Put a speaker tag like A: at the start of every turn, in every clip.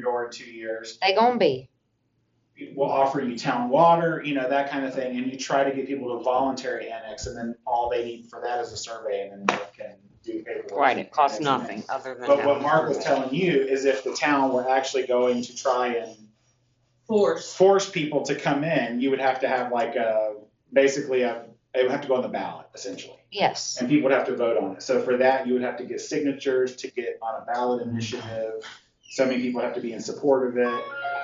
A: door in two years.
B: They gonna be.
A: We'll offer you town water, you know, that kind of thing, and you try to get people to voluntary annex, and then all they need for that is a survey, and then they can do paperwork.
C: Right, it costs
A: and everything.
C: nothing other than.
A: But what
C: having
A: Mark was
C: it.
A: telling you is if the town were actually going to try and
D: force.
A: force people to come in, you would have to have like a, basically a, it would have to go on the ballot essentially.
B: Yes.
A: And people would have to vote on it. So for that, you would have to get signatures to get on a ballot initiative. So many people have to be in support of it.
B: Yeah,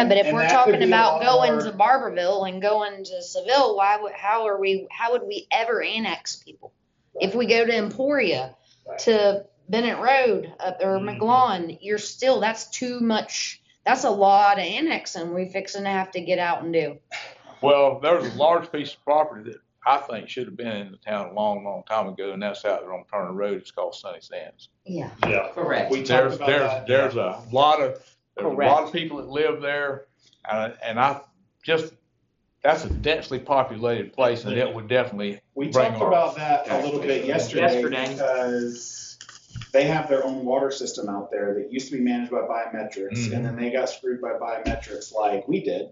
A: And-
B: but if
A: and
B: we're
A: that could
B: talking
A: be a
B: about
A: lot
B: going
A: more-
B: to Barberville and going to Seville, why would, how are we, how would we ever annex people? If we go to Emporia,
A: Right. Mm-hmm.
B: to Bennett Road, up or
E: Mhm.
B: McGlon, you're still, that's too much, that's a lot of annexing we fixing to have to get out and do.
E: Well, there was a large piece of property that I think should have been in the town a long, long time ago, and that's out there on Turner Road. It's called Sunny Sands.
B: Yeah.
E: Yeah.
D: Correct.
A: We talked
E: There's,
A: about
E: there's,
A: that.
E: there's a lot of, there's a lot
C: Correct.
E: of people that live there, and, and I just, that's a densely populated place, and it would definitely,
A: We
E: Bring
A: talked
E: on.
A: about that a little bit yesterday
C: Yesterday.
A: because they have their own water system out there that used to be managed by biometrics and then they got screwed by biometrics like we did.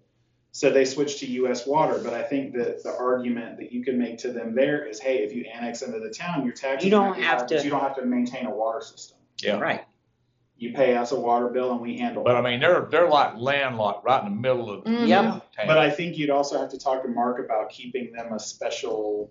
A: So they switched to US water, but I think that the argument that you can make to them there is, hey, if you annex into the town, your taxes
C: You don't
A: might be
C: have
A: high, but
C: to-
A: You don't have to maintain a water system.
E: yeah.
C: Right,
A: You pay us a water bill and we handle it.
E: But I mean, they're, they're like landlocked right in the middle of
B: Mhm.
C: Yep.
A: But
E: town.
A: I think you'd also have to talk to Mark about keeping them a special,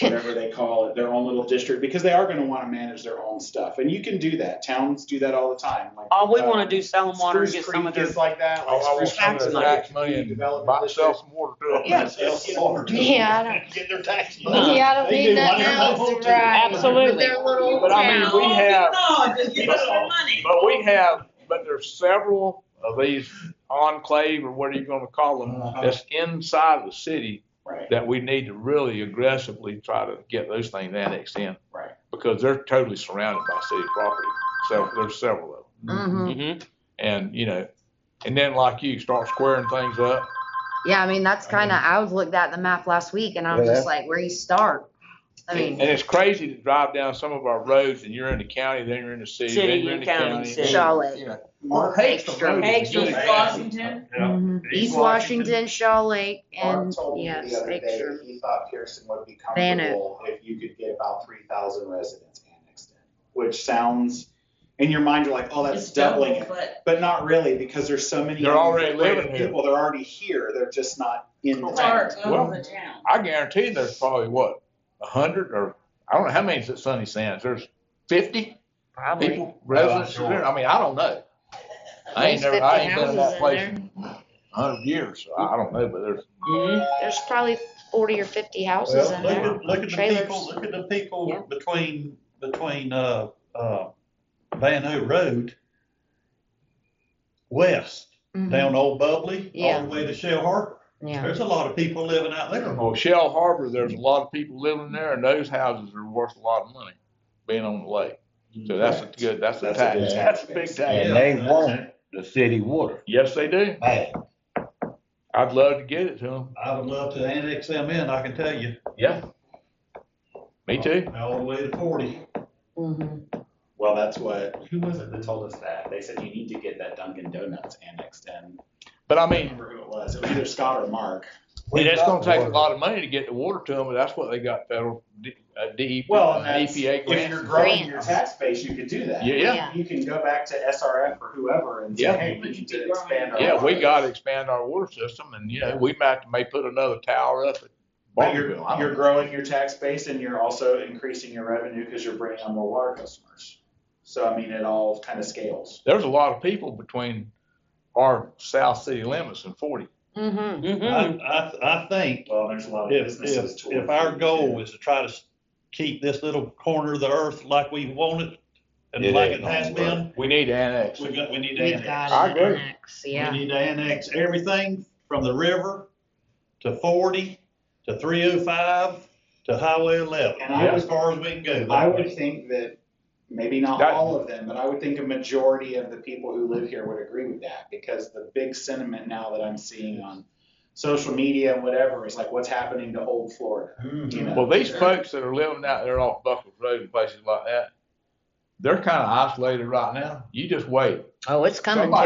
A: whatever they call it, their own little district, because they are gonna wanna manage their own stuff, and you can do that, towns do that all the time, like.
C: all we
A: uh,
C: wanna do is sell them water and get
A: Spruce
C: some of
A: Creek
C: their,
A: is like that,
E: I
A: like
E: want
A: Spruce
E: some of
A: Creek's
E: that
C: money.
A: like
E: tax money and
A: Development
E: buy myself some water. to it.
A: Yeah, sell some water to
B: Yeah, I don't,
F: Get their tax money.
B: yeah, I don't
F: They
B: need
F: do
B: that
F: one or
B: now,
F: both,
B: it's
F: too.
B: right. With
C: Absolutely.
B: their little
E: But I mean,
B: town.
C: Mm-hmm.
E: we have-
D: No, just give us our money.
E: But we have, but there's several of these enclave or what are you gonna call them,
A: Uh-huh.
E: that's inside the city
A: Right,
E: that we need to really aggressively try to get those things annexed in.
A: right.
E: Because they're totally surrounded by city property. So there's several of them.
B: Mhm.
C: Mhm.
E: And, you know, and then like you, start squaring things up.
B: Yeah, I mean, that's
E: I mean-
B: kinda, I was looked at the map last week and I was
F: Yeah.
B: just like, where you start? I
E: And
B: mean,
E: it's crazy to drive down some of our roads and you're in the county, then you're in the city, then
C: City,
E: you're in the
C: county,
E: county.
C: city.
B: Charlotte.
E: You know,
A: Mark
B: hates the road.
C: Hates
D: East Washington,
B: Mhm.
F: East
B: East Washington, Shaw Lake,
A: Mark
B: and
A: told me
B: yes,
A: the other day
B: Victor.
A: that he thought Pearson would be
B: Van Oak.
A: comfortable if you could get about three thousand residents annexed in, which sounds, in your mind, you're like, oh, that's
D: it's
A: doubling it.
D: double, but
A: But not really, because there's so many.
E: They're already
A: integrated
E: living here.
A: People, they're already here, they're just not in the
D: it's
A: town.
D: part of the town.
E: I guarantee there's probably what, a hundred or, I don't know how many's at Sunny Sands. There's fifty?
C: probably.
E: people, residents,
F: sure.
E: there. I mean, I don't know. I ain't
B: least
E: never, I
B: 50
E: ain't been
B: houses
E: in that
B: in
E: place in a hundred years, so I don't know, but there's,
C: Mhm.
B: There's probably forty or fifty houses
F: Well,
B: in
F: look
B: there.
F: at, look at the
B: Trailers.
F: people, look at the
C: Yeah.
F: people between, between, uh, uh, Van Hook Road west,
B: Mhm.
F: down Old Bubbly, all
B: Yeah.
F: the way to Shell Harbor.
B: Yeah.
F: There's a lot of people living out there.
E: well, Shell Harbor, there's a lot of people living there, and those houses are worth a lot of money, being on the lake. So that's a good, that's a
A: That's a good
E: tax,
A: tax
E: that's a big
A: base.
E: tax.
G: And they want the city water.
E: Yes, they do.
G: Hey,
E: I'd love to get it to them.
F: I would love to annex them in, I can tell you,
E: Yeah. Me too.
F: all the way to forty.
B: Mhm.
A: Well, that's what, who was it that told us that? They said you need to get that Dunkin' Donuts annexed in.
E: But I
A: I can't
E: mean,
A: remember who it was, it was either Scott or Mark.
E: and it's gonna take a lot of money to get the water to them, but that's what they got federal, D- uh, DEP,
A: Well,
E: uh,
A: and that's-
E: EPA
A: If you're
E: grants.
A: growing your
B: Grants.
A: tax base, you could do that.
E: Yeah, yeah.
A: You can go back to SRF or whoever and
E: Yeah.
A: say, hey, we need to expand our.
E: Yeah, we
A: water."
E: gotta expand our water system and, you know, we might, may put another tower up at
A: But you're,
E: Barberville. I don't
A: you're
E: know.
A: growing your tax base and you're also increasing your revenue because you're bringing on more water customers. So I mean, it all kind of scales.
E: There's a lot of people between our south city limits and forty.
B: Mhm.
C: Mhm.
D: Mm-hmm.
F: I, I, I think
A: Well, there's a lot of
F: if,
A: businesses.
F: if,
A: toward
F: if our
A: you,
F: goal
A: too.
F: is to try to s- keep this little corner of the earth like we want it and
G: It
F: like
G: ain't
F: it has
G: gonna work.
F: been,
E: We need to annex.
F: we got, we need to
B: We've
F: annex.
E: I
B: got it
E: agree.
B: annexed,
F: We
B: yeah.
F: need to annex everything from the river to forty, to three oh five, to highway eleven,
A: And I
F: as
A: would-
F: far as we can go.
A: I would think that maybe not
E: That-
A: all of them, but I would think a majority of the people who live here would agree with that because the big sentiment now that I'm seeing on social media and whatever is like what's happening to old Florida.
F: Mhm.
A: You know,
E: Well, these folks that are living out there off Buckles Road and places like that,
B: they're kind of isolated right now. You just wait.
E: Oh, it's coming to
B: Somebody